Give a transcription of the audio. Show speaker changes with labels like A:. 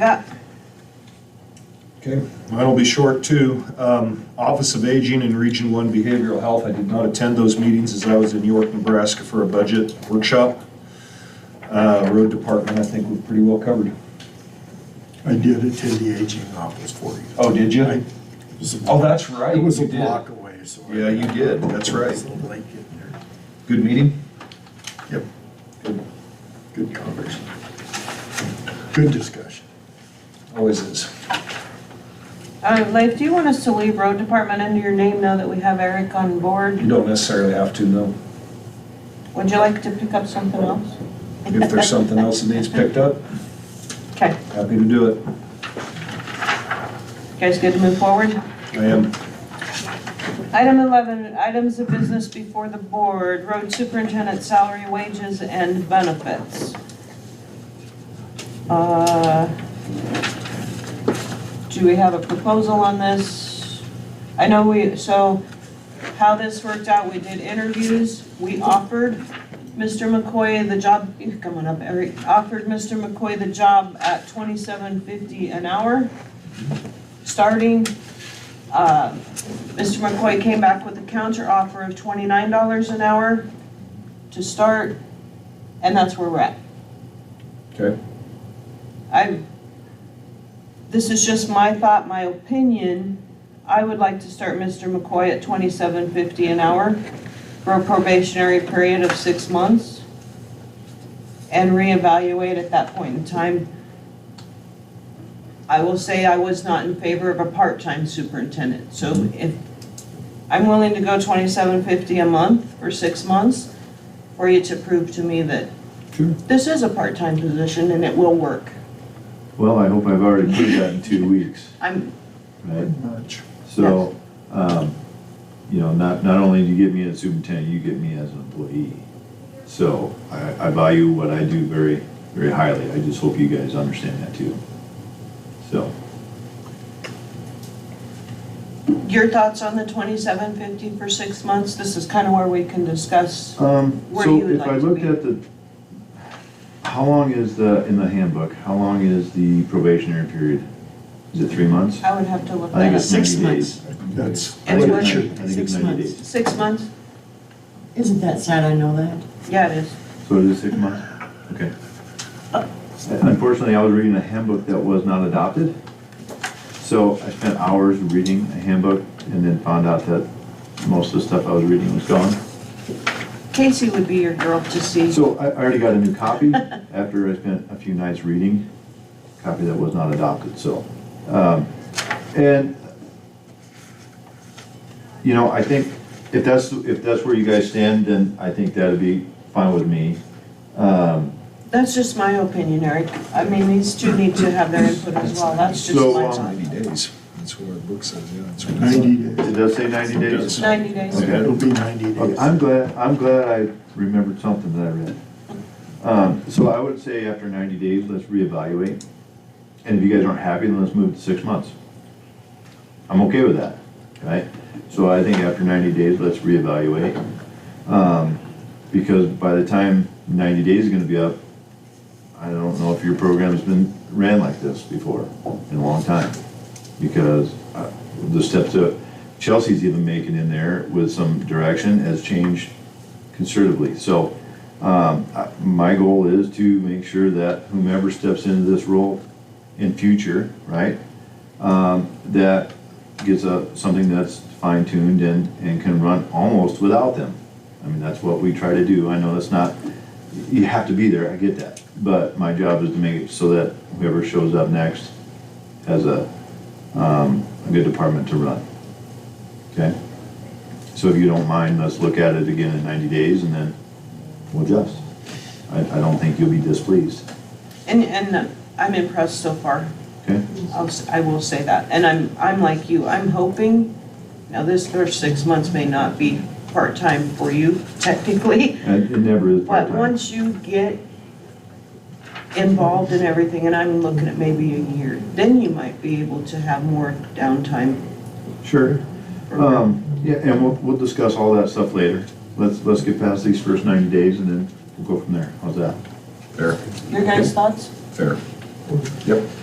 A: Yeah,
B: Okay, mine will be short too. Um, Office of Aging and Region One Behavioral Health, I did not attend those meetings as I was in York, Nebraska for a budget workshop. Uh, Road Department, I think we're pretty well covered.
C: I did attend the aging office for you.
B: Oh, did you?
C: I- it was a-
B: Oh, that's right,
C: It was a
B: you did.
C: block away, so. I-
B: Yeah, you did, that's right.
C: I was late getting there.
B: Good meeting?
C: Yep,
B: Good.
C: good conversation. Good discussion.
B: Always is.
A: uh, Leif, do you want us to leave road department under your name now that we have Eric on
B: You
A: board?
B: don't necessarily have to, no.
A: Would you like to pick up something else?
B: If there's something else that needs picked up,
A: Okay,
B: happy to do it.
A: you guys good to move forward?
B: I am.
A: Item 11, items of business before the board, road superintendent salary, wages, and benefits. Uh, Do we have a proposal on this? I know we, so how this worked out, we did interviews, we offered Mr. McCoy the job, you're coming up, Eric, offered Mr. McCoy the job at 27.50 an hour, starting. Uh, Mr. McCoy came back with a counter offer of twenty-nine dollars an hour to start, and that's where we're at.
B: Okay.
A: I, this is just my thought, my opinion. I would like to start Mr. McCoy at twenty-seven fifty an hour for a probationary period of six months and reevaluate at that point in time. I will say I was not in favor of a part-time superintendent, so if, I'm willing to go twenty-seven fifty a month for six months for you to prove to me that
C: Sure.
A: this is a part-time position and it will work.
D: Well, I hope I've already proved that in two weeks,
A: I'm,
D: right?
C: Much.
D: So, um, you know, not, not only do you get me as superintendent, you get me as an employee. So I, I value what I do very, very highly. I just hope you guys understand that too. So,
A: your thoughts on the twenty-seven fifty for six months? This is kind of where we can discuss.
D: um,
A: Where do you
D: so
A: would
D: if I
A: like to
D: looked
A: be?
D: at the, how long is the, in the handbook, how long is the probationary period? Is it three months?
A: I would have to look that
D: I think
A: up.
D: it's
E: Six
D: ninety days.
E: months.
C: That's
D: I
E: It's
D: think
E: worth
D: it's
E: it.
D: ninety- I think it's
E: Six
D: ninety
E: months.
D: days.
A: Six months?
E: Isn't that sad, I know that?
A: Yeah, it is.
D: So it is six months? Okay. Unfortunately, I was reading a handbook that was not adopted. So I spent hours reading a handbook and then found out that most of the stuff I was reading was gone.
A: Casey would be your girl to see.
D: So I I already got a new copy after I spent a few nights reading, copy that was not adopted, so. um, And, you know, I think if that's, if that's where you guys stand, then I think that'd be fine with me. Um,
A: That's just my opinion, Eric. I mean, these two need to have their input as well. That's just
D: So,
A: my
D: um,
A: thought.
B: Ninety days. That's what our book says, yeah. that's what it says.
C: ninety days.
D: It does say 90 days?
A: Ninety days.
D: Okay.
C: It'll be ninety
D: Okay,
C: days.
D: I'm glad, I'm glad I remembered something that I read. Um, So I would say after 90 days, let's reevaluate. And if you guys aren't happy, then let's move to six months. I'm okay with that, right? So I think after 90 days, let's reevaluate. Um, Because by the time 90 days is gonna be up, I don't know if your program's been ran like this before in a long time. Because uh, the steps that Chelsea's even making in there with some direction has changed considerably. So um, I- my goal is to make sure that whomever steps into this role in future, right, um, that gets a, something that's fine tuned and, and can run almost without them. I mean, that's what we try to do. I know it's not, you have to be there, I get that. But my job is to make it so that whoever shows up next has a, um, a good department to run. Okay? So if you don't mind, let's look at it again in ninety days and then we'll adjust. I, I don't think you'll be displeased,
A: And, and I'm impressed so far.
D: okay?
A: I'll, s- I will say that. And I'm, I'm like you. I'm hoping, now this first six months may not be part-time for you technically.
D: And it never is
A: But
D: part-time.
A: once you get involved in everything, and I'm looking at maybe a year, then you might be able to have more downtime.
D: Sure. Um, yeah, and we'll, we'll discuss all that stuff later. Let's, let's get past these first ninety days and then we'll go from there. How's that?
B: Fair,
A: Your guys' thoughts?
B: fair. Yep.